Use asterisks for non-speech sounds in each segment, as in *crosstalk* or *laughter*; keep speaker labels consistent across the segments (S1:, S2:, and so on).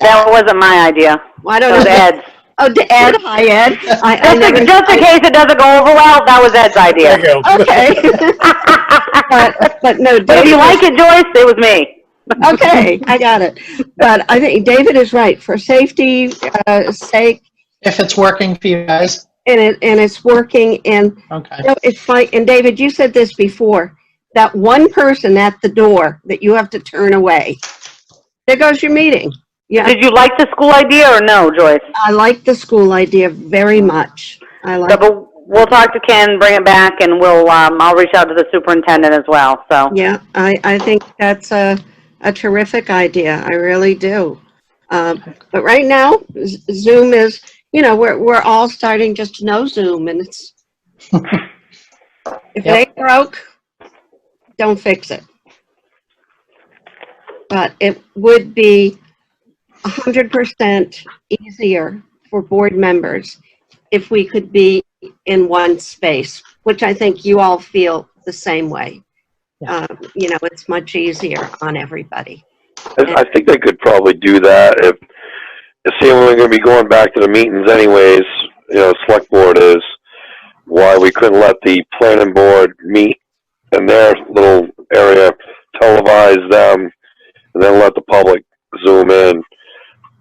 S1: That wasn't my idea.
S2: Well,
S1: That
S2: I don't know.
S1: was
S2: *laughs*
S1: Ed's.
S2: Oh, to Ed, hi Ed. *laughs* I- I
S1: Just
S2: never-
S1: in, just in case it doesn't go over well, that was Ed's
S3: There
S1: idea.
S3: you go.
S2: Okay. *laughs* But, but
S1: But *laughs*
S2: no,
S1: if
S2: David
S1: you
S2: was-
S1: like it, Joyce, it was me.
S2: Okay, *laughs* I got it. But I think David is right. For safety uh, sake,
S4: If it's working for you guys,
S2: and it, and it's working, and
S4: okay.
S2: you know, it's like, and David, you said this before, that one person at the door that you have to turn away. There goes your meeting. Yeah,
S1: Did you like the school idea or no, Joyce?
S2: I like the school idea very much. I
S1: So,
S2: like,
S1: but we'll talk to Ken, bring it back, and we'll, um, I'll reach out to the superintendent as well, so.
S2: yeah, I, I think that's a, a terrific idea. I really do. Um, But right now, Z- Zoom is, you know, we're, we're all starting just to know Zoom and it's, if it
S4: Yep.
S2: ain't broke, don't fix it. But it would be a hundred percent easier for board members if we could be in one space, which I think you all feel the same way. Um, You know, it's much easier on everybody.
S5: I, I think they could probably do that if, if seeing we're gonna be going back to the meetings anyways, you know, select board is why we couldn't let the planning board meet in their little area, televise them, and then let the public zoom in.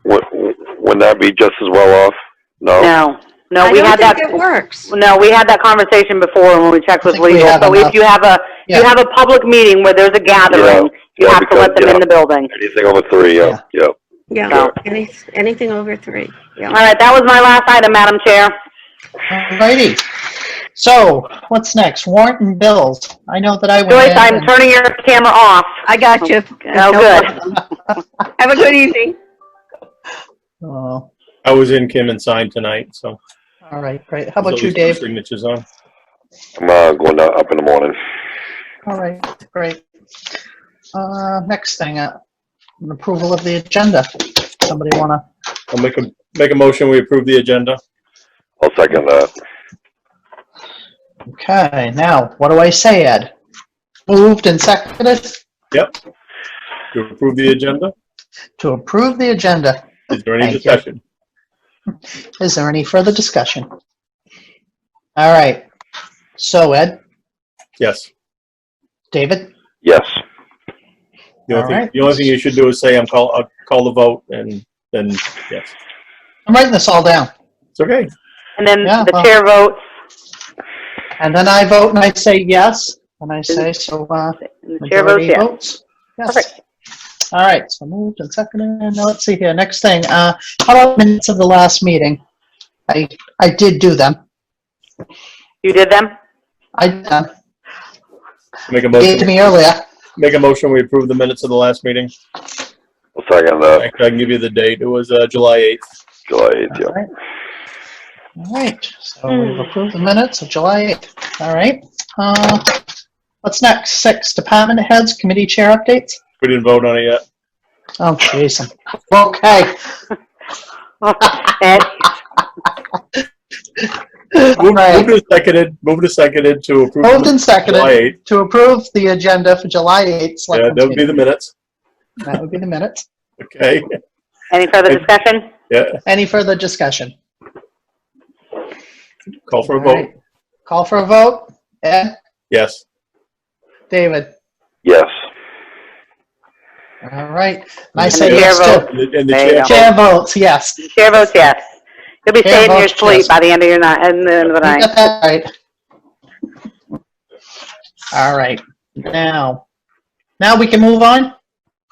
S5: Wou- Wouldn't that be just as well off? No?
S1: No, no, we had
S2: I
S1: that,
S2: don't think it works.
S1: no, we had that conversation before when we checked with
S4: I think we
S1: legal.
S4: have
S1: So if
S4: enough.
S1: you have a, you
S4: Yeah.
S1: have a public meeting where there's a gathering, you
S5: yeah,
S1: have to
S5: because,
S1: let them in
S5: yeah.
S1: the building.
S5: Anything over three, yeah, yeah.
S2: Yeah,
S1: Yeah.
S2: any- anything over three,
S1: All
S2: yeah.
S1: right, that was my last item, Madam Chair.
S4: Alrighty. So what's next? Warrant and bills. I know that I went
S1: Joyce,
S4: in
S1: I'm
S4: and-
S1: turning your camera off.
S2: I got you.
S1: Oh, good.
S2: Have a good evening.
S4: Oh,
S3: I was in Kim and signed tonight, so.
S4: All right, great. How about
S3: there's at
S4: you,
S3: least two
S4: Dave?
S3: Signatures on.
S5: I'm, uh, going down- up in the morning.
S4: All right, great. Uh, next thing, uh, an approval of the agenda. Somebody wanna,
S3: I'll make a, make a motion, we approve the agenda.
S5: I'll second that.
S4: okay, now, what do I say, Ed? Moved and seconded
S3: To approve the agenda?
S4: to approve the agenda.
S3: Is there any
S4: Thank you.
S3: discussion?
S4: Is there any further discussion? All right. So Ed,
S3: Yes.
S4: David,
S5: Yes.
S3: The only
S4: All
S3: thing,
S4: right.
S3: the only thing you should do is say, I'm call, I'll call the vote, and then, yes.
S4: I'm writing this all down.
S3: It's okay.
S1: And then
S4: Yeah,
S1: the
S4: well-
S1: chair votes,
S4: And then I vote and I say yes, and I say, so, uh,
S1: and the chair votes
S4: majority
S1: yes.
S4: votes. Yes. All right, so moved and seconded. Now, let's see here. Next thing, uh, how about minutes of the last meeting? I, I did do them.
S1: You did them?
S4: *laughs* I did them.
S3: Make a
S4: You Gave to
S3: motion,
S4: me earlier.
S3: make a motion, we approve the minutes of the last meeting.
S5: I'll second that.
S3: Actually, I can give you the date. It was, uh, July 8th.
S5: July eighth, yeah.
S4: All right. All right, so we've approved the minutes of July 8th. All right. Uh, What's next? Six, department heads, committee chair updates?
S3: We didn't vote on it yet.
S4: Oh, Jason. Okay.
S1: Ed,
S4: All
S3: Moved
S4: right.
S3: and seconded, moved and seconded to approve. the
S4: Moved and seconded.
S3: July 8th.
S4: To approve the agenda for July 8th.
S3: Yeah,
S4: selectmen's
S3: that would be
S4: meeting.
S3: the minutes.
S4: That would be the minutes.
S3: Okay, *laughs*
S1: any further discussion?
S3: yeah,
S4: Any further discussion?
S3: call for a
S4: All right.
S3: vote.
S4: Call for a vote. Ed,
S3: Yes.
S4: David.
S5: Yes.
S4: All right. And I
S3: And
S4: say
S1: the
S4: yes
S1: chair
S4: too.
S3: And the- and the
S1: There you votes. go.
S4: Chair
S3: chair,
S4: votes yes.
S1: The chair votes yes. You'll be
S4: Chair
S1: staying in your
S4: votes yes.
S1: sleep by the end of your night, and the end of the
S4: You
S1: night.
S4: got that right. All right. Now, now we can move on.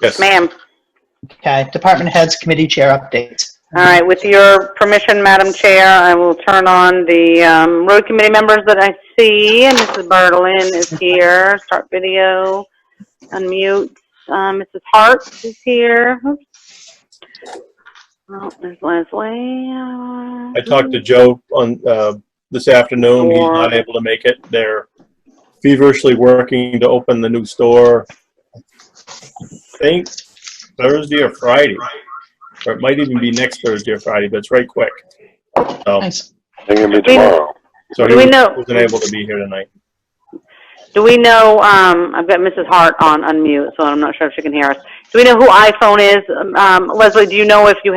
S3: yes.
S1: Ma'am,
S4: Okay, department heads, committee chair updates.
S1: all right, with your permission, Madam Chair, I will turn on the um, road committee members that I see, and Mrs. Bertolin is here, start video, unmute, Um, Mrs. Hart is here. Oops. Oh, There's Leslie.
S3: I talked to Joe on, uh, this afternoon, he's not able to make it. They're feverishly working to open the new store. I Think Thursday or Friday, or it might even be next Thursday or Friday, but it's right quick. So,
S4: Nice.
S5: I think it'll be tomorrow.
S3: so he
S1: Do we know-
S3: wasn't able to be here tonight.
S1: Do we know, um, I've got Mrs. Hart on unmute, so I'm not sure if she can hear us. Do we know who iPhone is? Um, Leslie, do you know if you